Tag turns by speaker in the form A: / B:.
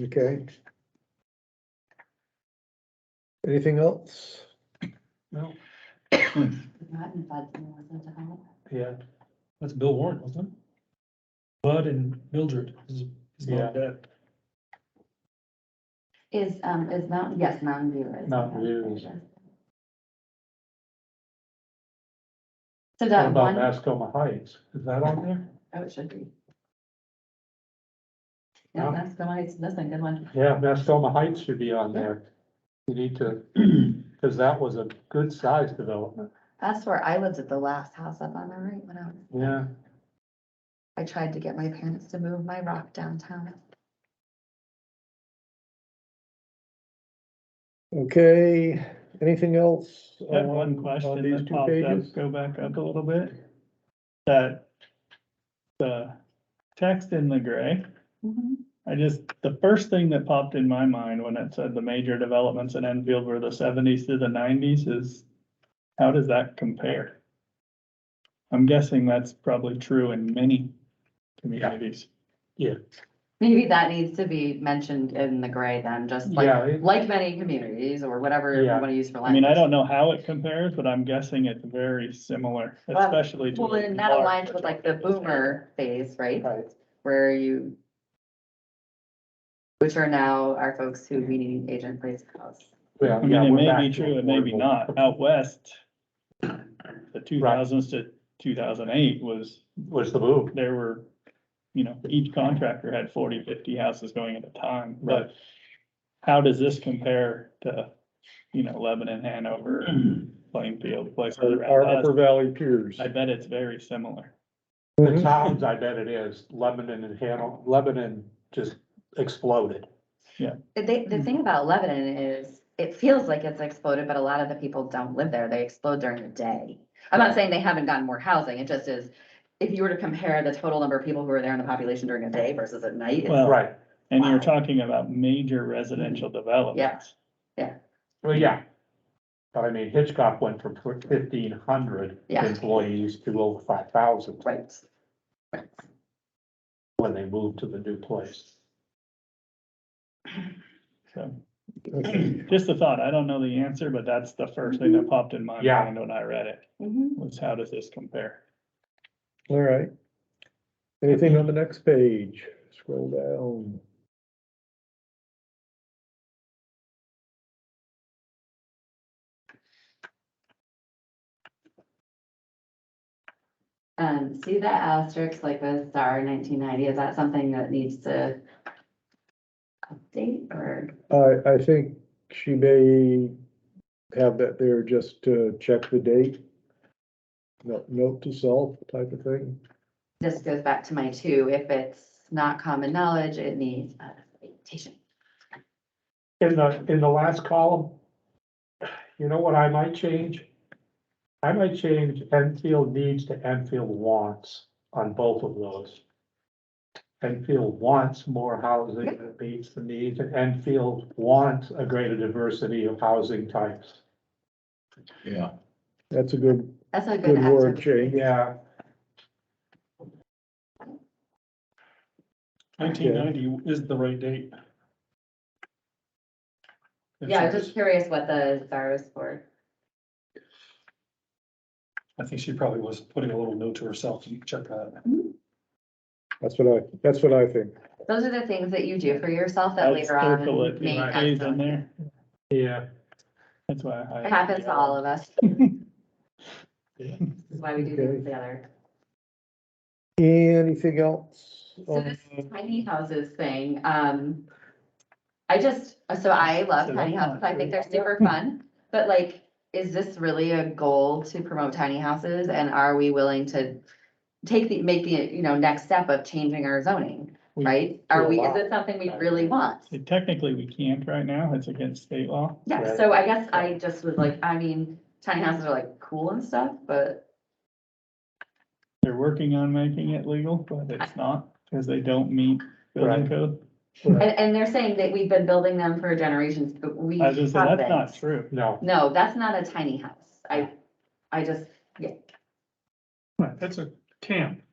A: Okay. Anything else?
B: No,
C: Not in five minutes, that's a holiday.
B: yeah, that's Bill Warren, wasn't it? Bud and Mildred is, is
D: Yeah.
B: not dead.
C: Is, um, is Mountain, yes, Mountain View is.
D: Mountain View is-
C: So
D: What
C: that
D: about
C: one,
D: Mascoma Heights? Is that on there?
C: oh, it should be. Yeah,
D: Huh?
C: that's the one, that's a good one.
D: Yeah, Mascoma Heights should be on there. You need to, because that was a good sized development.
C: That's where I lived at the last house up on the right when I was,
D: Yeah,
C: I tried to get my parents to move my rock downtown.
A: Okay, anything else?
E: I have
A: on-
E: one
A: On
E: question
A: these
E: that
A: two
E: popped
A: pages?
E: up, go back up a little bit. That, the text in the gray, I just, the first thing that popped in my mind when it said the major developments in Enfield were the seventies to the nineties is, how does that compare? I'm guessing that's probably true in many communities.
C: Maybe that needs to be mentioned in the gray then, just
D: Yeah,
C: like,
D: it-
C: like many communities or whatever you
D: Yeah.
C: want to use for
E: I
C: language.
E: mean, I don't know how it compares, but I'm guessing it's very similar,
C: Well,
E: especially to.
C: Well,
E: what
C: and that
E: Mark
C: aligns
E: was
C: with like the
E: talking about.
C: boomer phase, right?
D: right.
C: Where you. Which are now our folks who we need agent place house.
D: Yeah,
E: I mean, it
D: we're
E: may
D: back
E: be
D: to
E: true, it may be
D: affordable.
E: not. Out west, the two thousands to two thousand eight was,
D: Was the move.
E: there were, you know, each contractor had 40, 50 houses going at a time,
D: Right.
E: but how does this compare to, you know, Lebanon, Hanover, Plainfield, places
D: Our-
A: Our
E: around
A: Upper
E: us?
A: Valley peers.
E: I bet it's very similar.
C: Mhm.
D: The towns, I bet it is. Lebanon and Hanover, Lebanon just exploded.
C: The, thi-
D: Mm-hmm.
C: the thing about Lebanon is, it feels like it's exploded, but a lot of the people don't live there. They explode during the day. I'm not
D: Right.
C: saying they haven't gotten more housing. It just is, if you were to compare the total number of people who are there in the population during a day versus at night, it's-
E: Well,
D: Right.
E: and
C: Wow.
E: you're talking about major residential developments.
D: Well, yeah. But I mean Hitchcock went from fifteen hundred
C: Yeah.
D: employees to over five thousand
C: right? Right.
D: when they moved to the new place.
E: So
A: Okay.
E: just a thought. I don't know the answer, but that's the first thing that popped in my
D: Yeah.
E: mind when I read it,
D: Mm-hmm.
C: Mhm.
E: was how does this compare?
A: All right. Anything on the next page? Scroll down.
C: Um, see that asterisk like the star nineteen ninety, is that something that needs to update or?
A: I, I think she may have that there just to check the date. No- Note to self type of thing.
C: This goes back to my two, if it's not common knowledge, it needs updatation.
D: In the, in the last column, you know what I might change? I might change Enfield needs to Enfield wants on both of those. Enfield wants more housing that meets the needs, and Enfield wants a greater diversity of housing types.
F: Yeah,
A: That's a good,
C: That's a good.
A: good word
C: asterisk.
A: change.
D: Yeah,
E: Nineteen ninety is the right date.
C: Yeah, I'm just curious what the star is for.
B: I think she probably was putting a little note to herself, you can check that.
A: That's what I, that's what I think.
C: Those are the things that you do for yourself that
E: I'd
C: later on.
E: circle it,
C: may
E: you know,
C: have
E: days in
C: some-
E: there.
D: yeah,
E: That's why. I-
C: It happens to all of us.
D: Yeah.
C: That's why we do things together.
A: Anything else?
C: So
E: Um,
A: on
C: this
A: the-
C: tiny houses thing, um, I just, so I love
E: So
C: tiny
E: that's
C: houses,
E: not
C: I think
E: true.
C: they're super fun, but like, is this really a goal to promote tiny houses, and are we willing to take the, make the, you know, next step of changing our zoning,
E: We
C: right? Are we, is
D: allow
C: this something we really want?
E: Technically, we can't right now. It's against state law.
C: Yeah,
D: Right.
C: so I guess I just was like, I mean, tiny houses are like cool and stuff, but
E: They're working on making it legal, but it's not because they don't meet building
D: Right.
E: code.
C: And, and they're saying that we've been building them for generations, but we.
E: I was just saying, that's
C: haven't.
E: not true.
D: no,
C: No, that's not a tiny house. I, I just, yeah,
B: That's a camp.